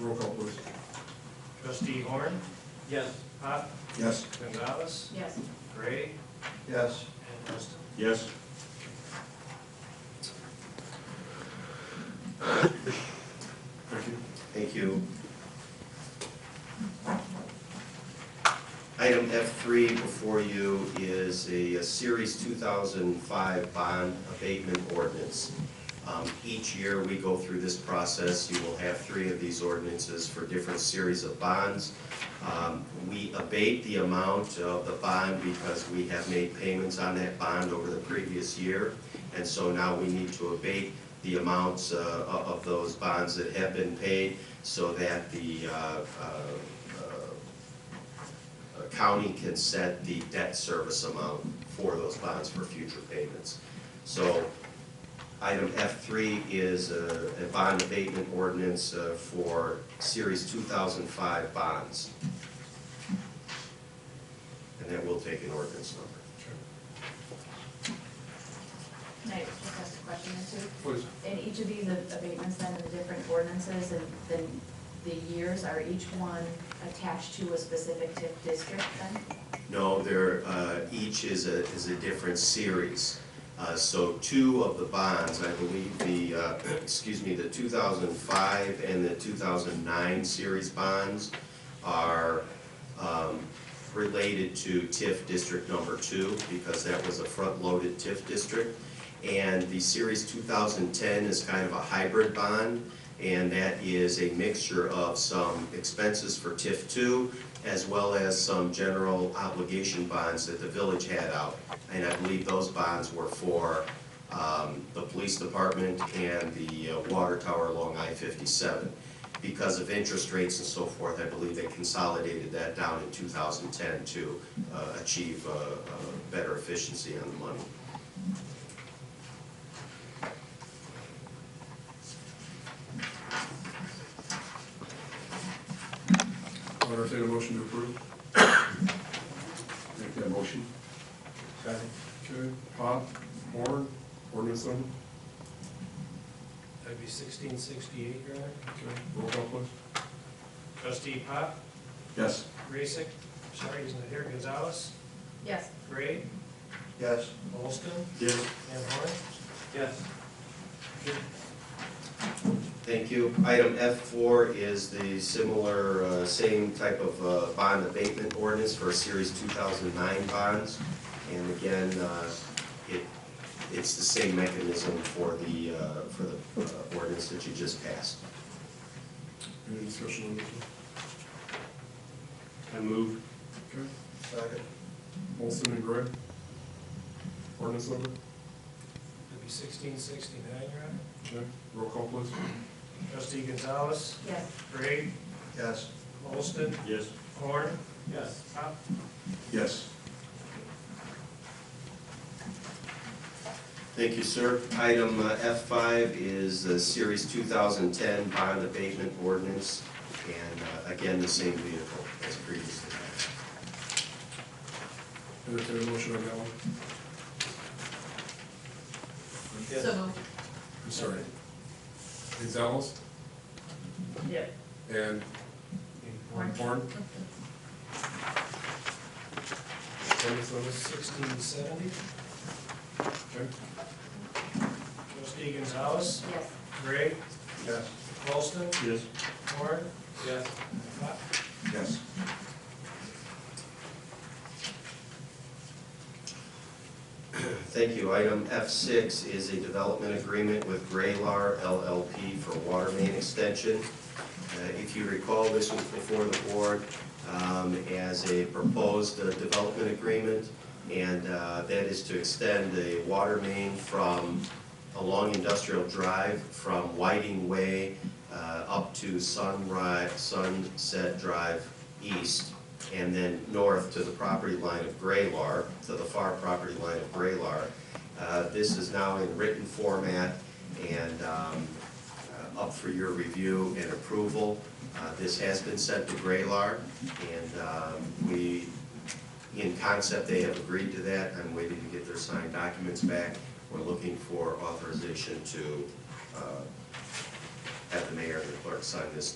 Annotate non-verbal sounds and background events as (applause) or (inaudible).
Roll call, please. Trustee Horn, Yes. Pop, Yes. Gonzalez, Yes. Gray, Yes. and Liston. Yes. Thank you. Thank you. Item F3 before you is a a Series 2005 bond abatement ordinance. Um, Each year, we go through this process. You will have three of these ordinances for different series of bonds. Um, We abate the amount of the bond because we have made payments on that bond over the previous year, and so now we need to abate the amounts uh, of of those bonds that have been paid so that the uh, uh, uh, county can set the debt service amount for those bonds for future payments. So Item F3 is a a bond abatement ordinance uh, for Series 2005 bonds. And that will take an ordinance number. Can I just ask a question or two? Please. In each of these abatements, then, the different ordinances, and then the years, are each one attached to a specific TIF district then? No, there, uh, each is a, is a different series. Uh, So two of the bonds, I believe the, uh, (clears throat) excuse me, the 2005 and the 2009 series bonds are um, related to TIF District Number Two, because that was a front-loaded TIF district. And the Series 2010 is kind of a hybrid bond, and that is a mixture of some expenses for TIF two, as well as some general obligation bonds that the village had out. And I believe those bonds were for um, the police department and the uh, water tower along I-57. Because of interest rates and so forth, I believe they consolidated that down in 2010 to uh, achieve uh, uh, better efficiency on the money. I'll entertain a motion to approve. Make that motion. Second. Okay. Pop, Horn, ordinance number. That'd be sixteen sixty-eight, Your Honor. Okay. Roll call, please. Trustee Pop, Yes. Raisik, sorry, he's not here, Gonzalez, Yes. Gray, Yes. Olston, Yes. and Horn. Yes. Thank you. Item F4 is the similar, uh, same type of uh, bond abatement ordinance for Series 2009 bonds. And again, uh, it, it's the same mechanism for the, uh, for the uh, ordinance that you just passed. Any discussion on this one? I move. Okay. Second. Olson and Gray. Ordinance number. That'd be sixteen sixty-nine, Your Honor. Okay. Roll call, please. Trustee Gonzalez, Yes. Gray, Yes. Olston, Yes. Horn, Yes. Pop. Yes. Thank you, ssir. Item uh, F5 is the Series 2010 bond abatement ordinance. And uh, again, the same vehicle as previously. Entertain a motion on that one. So moved. I'm sorry. Gonzalez Yep. and Horn. Horn. Ordinance number. Sixteen seventy, Okay. trustee Gonzalez, Yes. Gray, Yes. Olston, Yes. Horn, Yes. Pop. Yes. Thank you. Item F6 is a development agreement with Graylar LLP for water main extension. Uh, If you recall, this was before the board um, as a proposed uh, development agreement, and uh, that is to extend the water main from, along Industrial Drive, from Whiting Way uh, up to Sunrise, Sunset Drive East, and then north to the property line of Graylar, to the far property line of Graylar. Uh, This is now in written format and um, uh, up for your review and approval. Uh, This has been sent to Graylar, and um, we, in concept, they have agreed to that. I'm waiting to get their signed documents back. We're looking for authorization to uh, have the mayor and the clerk sign this